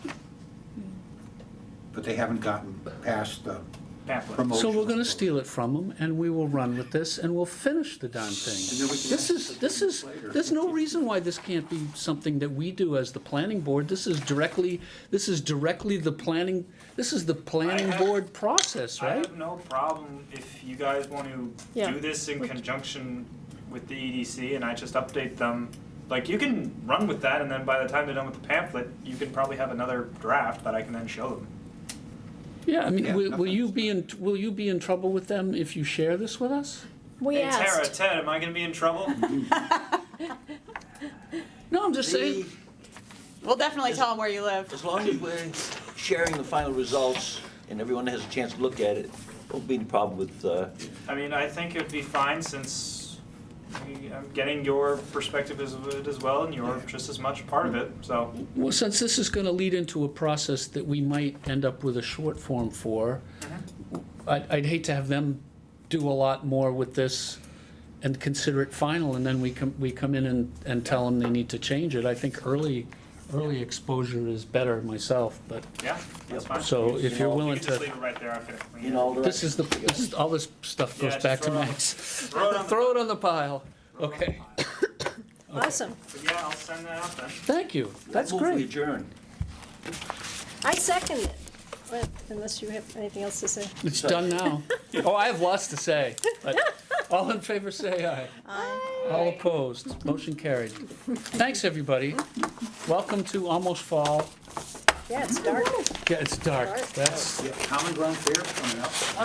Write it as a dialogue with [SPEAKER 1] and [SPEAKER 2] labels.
[SPEAKER 1] but they haven't gotten past the
[SPEAKER 2] Pamphlet.
[SPEAKER 1] promotion.
[SPEAKER 3] So we're gonna steal it from them, and we will run with this, and we'll finish the darn thing.
[SPEAKER 1] then we can
[SPEAKER 3] This is,
[SPEAKER 1] ask
[SPEAKER 3] this
[SPEAKER 1] them
[SPEAKER 3] is,
[SPEAKER 1] later.
[SPEAKER 3] there's no reason why this can't be something that we do as the planning board. This is directly, this is directly the planning, this is the planning
[SPEAKER 2] have-
[SPEAKER 3] board process,
[SPEAKER 2] I
[SPEAKER 3] right?
[SPEAKER 2] have no problem if you guys want to
[SPEAKER 4] Yeah.
[SPEAKER 2] do this in conjunction with the EDC and I just update them. Like, you can run with that and then by the time they're done with the pamphlet, you can probably have another draft that I can then show them.
[SPEAKER 3] Yeah, I mean,
[SPEAKER 1] Yeah,
[SPEAKER 3] will will you
[SPEAKER 1] nothing's-
[SPEAKER 3] be in, will you be in trouble with them if you share this with us?
[SPEAKER 4] We
[SPEAKER 2] Hey Tara,
[SPEAKER 4] asked.
[SPEAKER 2] Ted, am I gonna be in trouble?
[SPEAKER 3] No, I'm just saying,
[SPEAKER 5] We'll definitely tell them where you live.
[SPEAKER 6] As long as we're sharing the final results and everyone has a chance to look at it, won't be any problem with, uh,
[SPEAKER 2] I mean, I think it'd be fine since we- I'm getting your perspective as of it as well and you're just as much part of it, so.
[SPEAKER 4] Mm-hmm.
[SPEAKER 3] well, since this is gonna lead into a process that we might end up with a short form for, I'd, I'd hate to have them do a lot more with this and consider it final, and then we come, we come in and, and tell them they need to change it. I think early, early exposure is better myself, but,
[SPEAKER 2] Yeah, that's fine.
[SPEAKER 3] so if you're
[SPEAKER 6] You
[SPEAKER 2] You
[SPEAKER 3] willing
[SPEAKER 2] can just leave
[SPEAKER 3] to,
[SPEAKER 2] it right there, okay. We-
[SPEAKER 6] in all
[SPEAKER 3] this
[SPEAKER 6] directions.
[SPEAKER 3] is the, this is, all this stuff
[SPEAKER 2] Yeah,
[SPEAKER 3] goes
[SPEAKER 2] just
[SPEAKER 3] back to
[SPEAKER 2] throw it on-
[SPEAKER 3] Max.
[SPEAKER 2] throw it on the-
[SPEAKER 3] Throw it on the pile, okay.
[SPEAKER 4] Awesome.
[SPEAKER 2] So yeah, I'll send that out then.
[SPEAKER 3] Thank you, that's
[SPEAKER 6] Move we
[SPEAKER 3] great.
[SPEAKER 6] adjourn.
[SPEAKER 4] I second it. Well, Unless you have anything else to say.
[SPEAKER 3] It's done now. Oh, I have lots to say, but all in favor say aye. All opposed, motion carried. Thanks, everybody. Welcome to Almost Fall.
[SPEAKER 4] Yeah, it's dark.
[SPEAKER 3] Yeah, it's dark.
[SPEAKER 4] Dark.
[SPEAKER 3] That's,
[SPEAKER 1] Yeah, Common Ground Fair coming up.